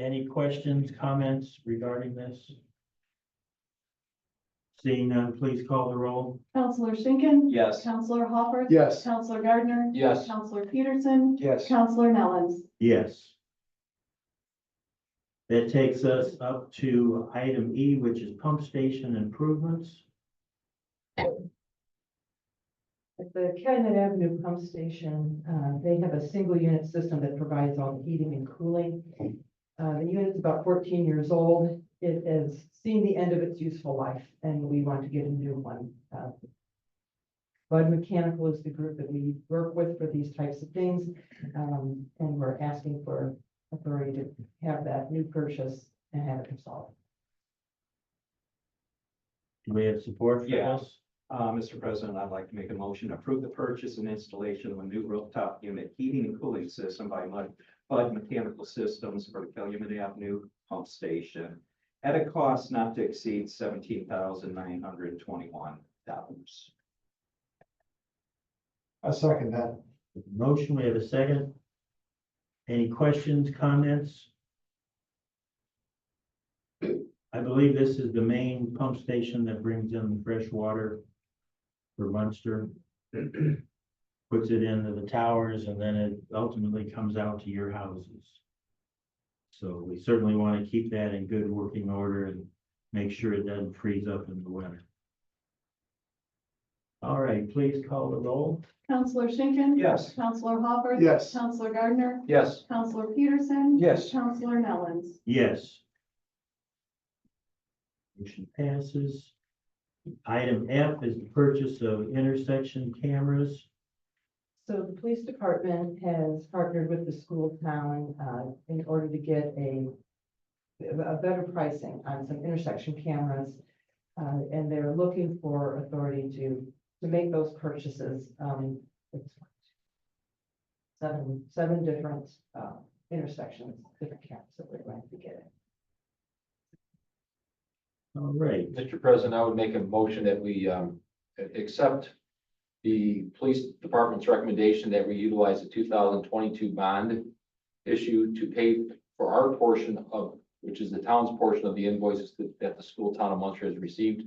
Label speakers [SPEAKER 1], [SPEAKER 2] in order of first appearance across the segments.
[SPEAKER 1] Any questions, comments regarding this? Seeing none, please call the roll.
[SPEAKER 2] Counselor Schinkin.
[SPEAKER 3] Yes.
[SPEAKER 2] Counselor Hopper.
[SPEAKER 4] Yes.
[SPEAKER 2] Counselor Gardner.
[SPEAKER 3] Yes.
[SPEAKER 2] Counselor Peterson.
[SPEAKER 4] Yes.
[SPEAKER 2] Counselor Nellens.
[SPEAKER 1] Yes. That takes us up to item E, which is pump station improvements.
[SPEAKER 5] At the Cabinet Avenue Pump Station, uh, they have a single unit system that provides all the heating and cooling. Uh, The unit's about fourteen years old. It has seen the end of its useful life, and we want to get a new one. Uh, Bud Mechanical is the group that we work with for these types of things, um, and we're asking for authority to have that new purchase and have it installed.
[SPEAKER 1] Do we have support for
[SPEAKER 3] Yeah.
[SPEAKER 1] this?
[SPEAKER 3] Uh, Mr. President, I'd like to make a motion to approve the purchase and installation of a new rooftop unit heating and cooling system by Mud, Bud Mechanical Systems for the Calumet Avenue Pump Station at a cost not to exceed seventeen thousand nine hundred twenty-one dollars.
[SPEAKER 4] I second that.
[SPEAKER 1] Motion, we have a second. Any questions, comments? I believe this is the main pump station that brings in the fresh water for Munster. Puts it into the towers and then it ultimately comes out to your houses. So we certainly want to keep that in good working order and make sure it doesn't freeze up in the winter. All right, please call the roll.
[SPEAKER 2] Counselor Schinkin.
[SPEAKER 3] Yes.
[SPEAKER 2] Counselor Hopper.
[SPEAKER 4] Yes.
[SPEAKER 2] Counselor Gardner.
[SPEAKER 3] Yes.
[SPEAKER 2] Counselor Peterson.
[SPEAKER 4] Yes.
[SPEAKER 2] Counselor Nellens.
[SPEAKER 1] Yes. Motion passes. Item F is the purchase of intersection cameras.
[SPEAKER 5] So the police department has partnered with the school town uh, in order to get a a better pricing on some intersection cameras. uh, And they're looking for authority to to make those purchases. um, it's Seven, seven different uh, intersections, different cameras that we're going to be getting.
[SPEAKER 1] All right,
[SPEAKER 6] Mr. President, I would make a motion that we um, a- accept the police department's recommendation that we utilize the two thousand twenty-two bond issue to pay for our portion of, which is the town's portion of the invoices that, that the school town of Munster has received.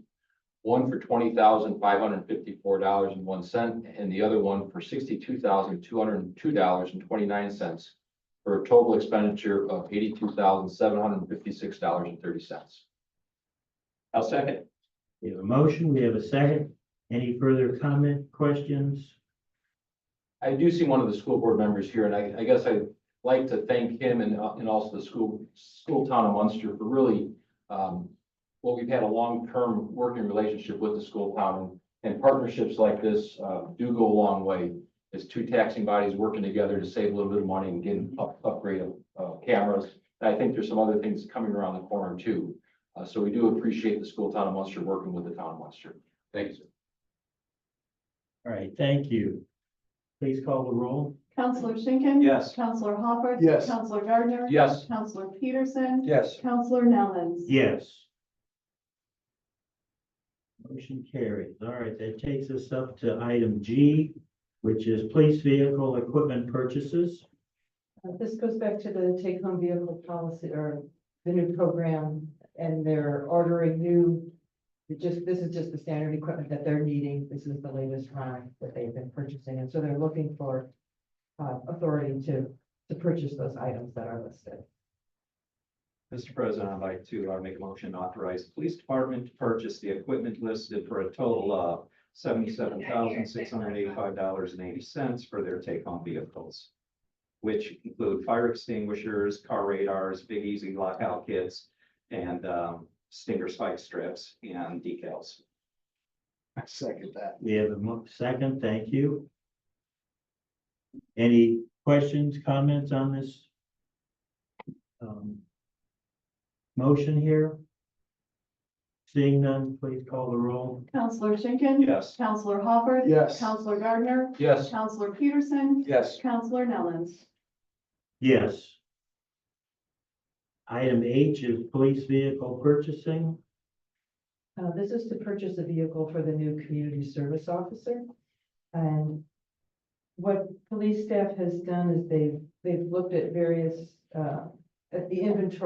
[SPEAKER 6] One for twenty thousand five hundred and fifty-four dollars and one cent, and the other one for sixty-two thousand two hundred and two dollars and twenty-nine cents for a total expenditure of eighty-two thousand seven hundred and fifty-six dollars and thirty cents.
[SPEAKER 3] I'll second.
[SPEAKER 1] we have a motion, we have a second. Any further comment, questions?
[SPEAKER 6] I do see one of the school board members here, and I, I guess I'd like to thank him and, uh, and also the school, school town of Munster for really, um, well, we've had a long-term working relationship with the school town, and partnerships like this, uh, do go a long way. It's two taxing bodies working together to save a little bit of money and get an up, upgrade of, uh, cameras. And I think there's some other things coming around the corner too, uh, so we do appreciate the school town of Munster working with the town of Munster. Thank you, sir.
[SPEAKER 1] All right, thank you. Please call the roll.
[SPEAKER 2] Counselor Schinkin.
[SPEAKER 3] Yes.
[SPEAKER 2] Counselor Hopper.
[SPEAKER 4] Yes.
[SPEAKER 2] Counselor Gardner.
[SPEAKER 6] Yes.
[SPEAKER 2] Counselor Peterson.
[SPEAKER 4] Yes.
[SPEAKER 2] Counselor Nellens.
[SPEAKER 1] Yes. Motion carries. All right, that takes us up to item G, which is police vehicle equipment purchases.
[SPEAKER 5] Uh, This goes back to the take-home vehicle policy or the new program, and they're ordering new. it Just, this is just the standard equipment that they're needing. This is the latest round that they've been purchasing, and so they're looking for uh, authority to, to purchase those items that are listed.
[SPEAKER 3] Mr. President, I'd like to uh, make a motion to authorize the police department to purchase the equipment listed for a total of seventy-seven thousand six hundred eighty-five dollars and eighty cents for their take-home vehicles, which include fire extinguishers, car radars, big easy lockout kits, and um, stinger spike strips and decals.
[SPEAKER 4] I second that.
[SPEAKER 1] We have a mo- second, thank you. Any questions, comments on this? um, Motion here? Seeing none, please call the roll.
[SPEAKER 2] Counselor Schinkin.
[SPEAKER 3] Yes.
[SPEAKER 2] Counselor Hopper.
[SPEAKER 4] Yes.
[SPEAKER 2] Counselor Gardner.
[SPEAKER 6] Yes.
[SPEAKER 2] Counselor Peterson.
[SPEAKER 4] Yes.
[SPEAKER 2] Counselor Nellens.
[SPEAKER 1] Yes. Item H is police vehicle purchasing.
[SPEAKER 5] Uh, this is to purchase a vehicle for the new community service officer. And what police staff has done is they've, they've looked at various, uh, at the inventory